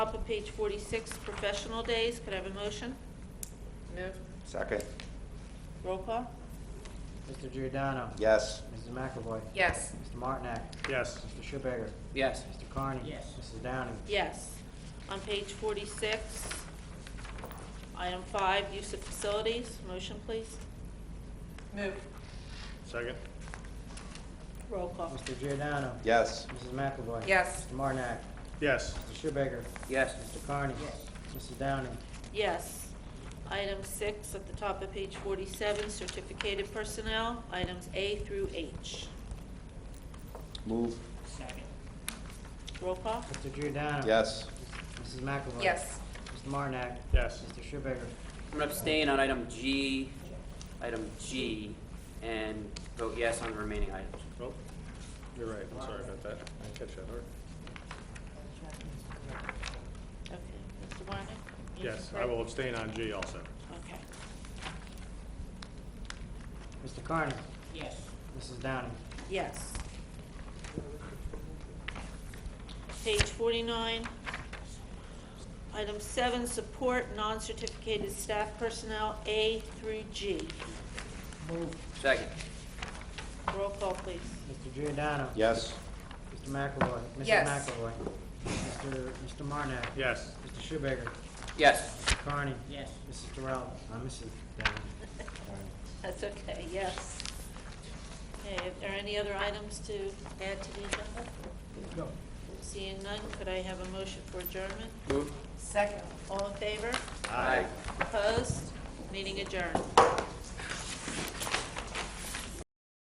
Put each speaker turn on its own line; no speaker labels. top of page 46, professional days. Could I have a motion?
Move.
Second.
Roll call?
Mr. Giordano.
Yes.
Mrs. McAvoy.
Yes.
Mr. Martinak.
yes,
Mr. Schubager.
Yes.
Mr. Carney.
Yes.
Mrs. Downing.
Yes. On page 46, item five, use of facilities. Motion, please.
Move.
second,
Roll call?
Mr. Giordano.
Yes.
Mrs. McAvoy.
Yes.
Mr. Martinak.
yes,
Mr. Schubager.
Yes.
Mr. Carney.
Yes.
Mrs. Downing.
Yes. Item six, at the top of page 47, certificated personnel, items A through H.
Move.
Second.
Roll call?
Mr. Giordano.
Yes.
Mrs. McAvoy.
Yes.
Mr. Martinak.
yes,
Mr. Schubager.
I'm going to abstain on item G, item G, and vote yes on the remaining items.
oh, you're right, I'm sorry about that, I didn't catch that, All right.
Okay. Mr. Martin?
yes, I will abstain on G also,
Okay.
Mr. Carney.
Yes.
Mrs. Downing.
Yes. Page 49, item seven, support non-certificated staff personnel, A through G.
Second,
Roll call, please.
Mr. Giordano.
Yes.
Mr. McAvoy.
Yes.
Mrs. McAvoy. Mr. Mr. Martinak.
yes,
Mr. Schubager.
yes,
Mr. Carney.
Yes.
Mrs. Terrell. Uh, Mrs. Downing. Sorry.
That's okay, yes. Okay, are there any other items to add to the agenda?
No.
Seeing none, could I have a motion for adjournment?
move.
Second.
All in favor?
Aye.
Opposed? Meeting adjourned.